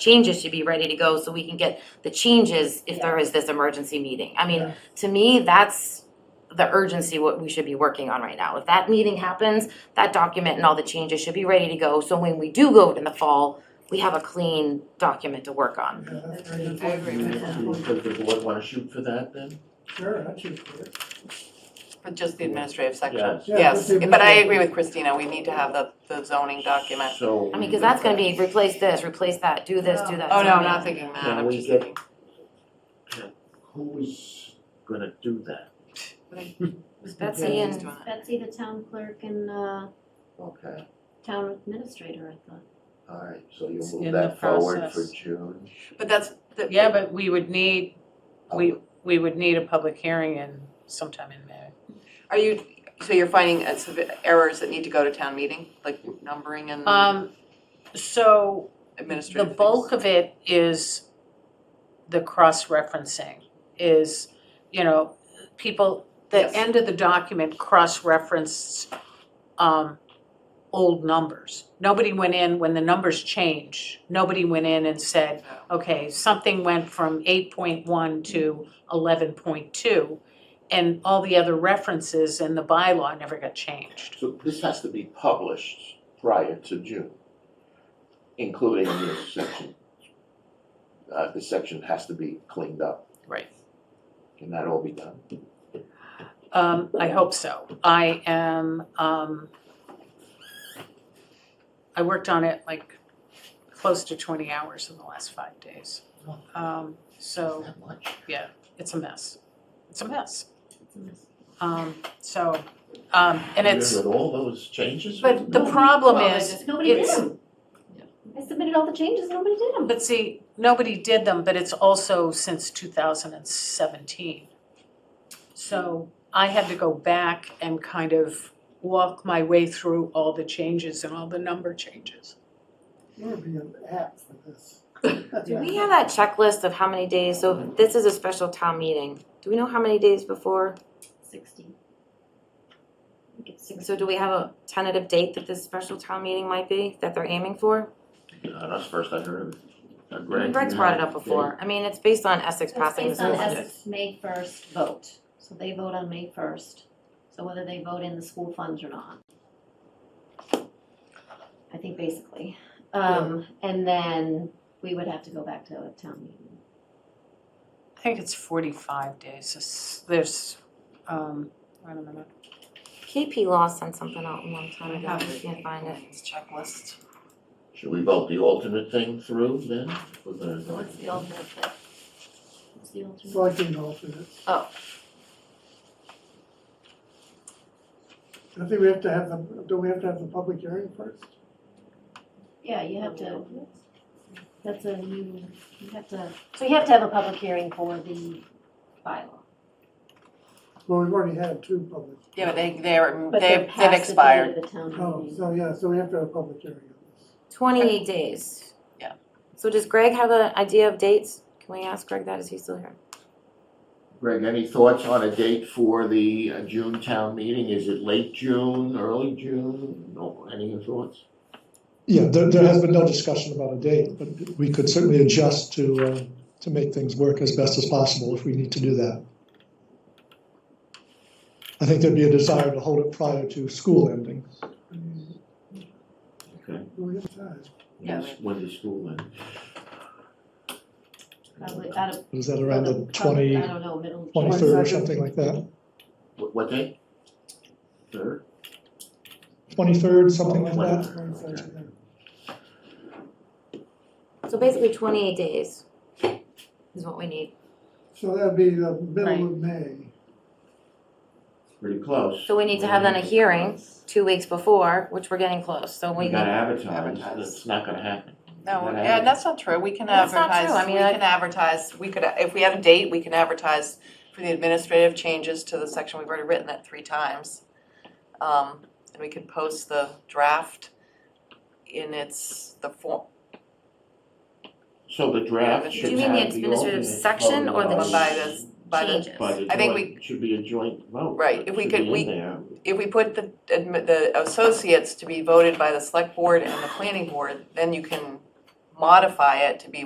changes should be ready to go so we can get the changes if there is this emergency meeting. I mean, to me, that's the urgency what we should be working on right now. If that meeting happens, that document and all the changes should be ready to go, so when we do go in the fall, we have a clean document to work on. I agree with that, Does the board wanna shoot for that then? Sure, I should clear. but just the administrative section. Yes. Yeah, Yes, just the but I administrative. agree with Christina, we need to have the, the zoning document. So. I mean, cause that's gonna be replace this, replace that, do this, do that. Oh, do no, that. not thinking that, Can I'm we just get- thinking, Who is gonna do that? Betsy just and, doing it. Betsy, the town clerk and uh Okay, town administrator, I thought. alright, so you'll It's move in that the forward for process. June. But that's, the- Yeah, but we would need, we, Um, we would need a public hearing in sometime in May. are you, so you're finding uh, some errors that need to go to town meeting, like numbering and Um, so the administrative things? bulk of it is the cross-referencing, is, you know, people, Yes. the end of the document cross-referenced, um, old numbers. Nobody went in, when the numbers change, nobody went in and said, Yeah. okay, something went from eight point one to eleven point two, and all the other references in the bylaw never got changed. So this has to be published prior to June, including this section. Uh, this section has to be cleaned up. Right. Can that all be done? Um, I hope so. I am, um, I worked on it like close to twenty hours in the last five days. Um, so That much? it's a mess. It's a mess. It's a mis- Um, so, um, and it's, With all those changes? but the problem Well, they is, just- Nobody did It's- them. I submitted all the changes, nobody did them. But see, nobody did them, but it's also since two thousand and seventeen. So I had to go back and kind of walk my way through all the changes and all the number changes. You would be an app for this. do we have that checklist of how many days, so if this is a special town meeting, do we know how many days before? Sixty. I think it's sixty. So do we have a tentative date that this special town meeting might be, that they're aiming for? Uh, that's first I heard of it. Uh, Greg, Greg's you brought it have up a date? before, I mean, it's based on Essex So It's passing this based on budget. Essex May first vote, so they vote on May first, so whether they vote in the school funds or not. I think basically, um, and then we would have to go back to a town meeting. I think it's forty-five days, It's- there's, um, wait a minute. KP Law sent something out a long time ago, have I can't find it. It's checklist. Should we vote the alternate thing through then? We're gonna- So what's the alternate? What's the alternate? Selecting alternates. Oh. I think we have to have the, don't we have to have the public hearing first? Yeah, you have to, that's a, you, you have to, so you have to have a public hearing for the bylaw. Well, we've already had two public. Yeah, but they, they're, But they're they've, they've past the date expired. of the town Oh, meeting. so yeah, so we have to have a public hearing on this. Twenty-eight days. Yeah. So does Greg have an idea of dates? Can we ask Greg that, is he still here? Greg, any thoughts on a date for the uh, June town meeting? Is it late June, early June? No, any thoughts? Yeah, there, there has been no discussion about a date, but we could certainly adjust to, uh, to make things work as best as possible if we need to do that. I think there'd be a desire to hold it prior to school ending. I mean, Okay. do we have time? Yeah, When's- When does school end? Probably out of. Is that around the probably- twenty, I don't know, middle. twenty-third or something like that? What, what day? Third? Twenty-third, something like Twenty. that? That's very exciting. So basically twenty-eight days is what we need. So that'd be the middle of May. Pretty close. So we need to have then a hearing two weeks before, which we're getting close, so we We need. gotta advertise, Advertise. it's not gonna happen. No, We gotta yeah, advertise. that's not true, we can That's not advertise, true. I we mean, I- can advertise, we could, if we had a date, we can advertise for the administrative changes to the section, we've already written that three times. Um, and we could post the draft in its, the form, So the draft Do should you mean the have the administrative alternate section or the voted by this, by the, Changes. By the I think joint- should be a joint vote. Right, It if we should could- be we- in there. if we put the, admi- the associates to be voted by the select board and the planning board, then you can modify it to be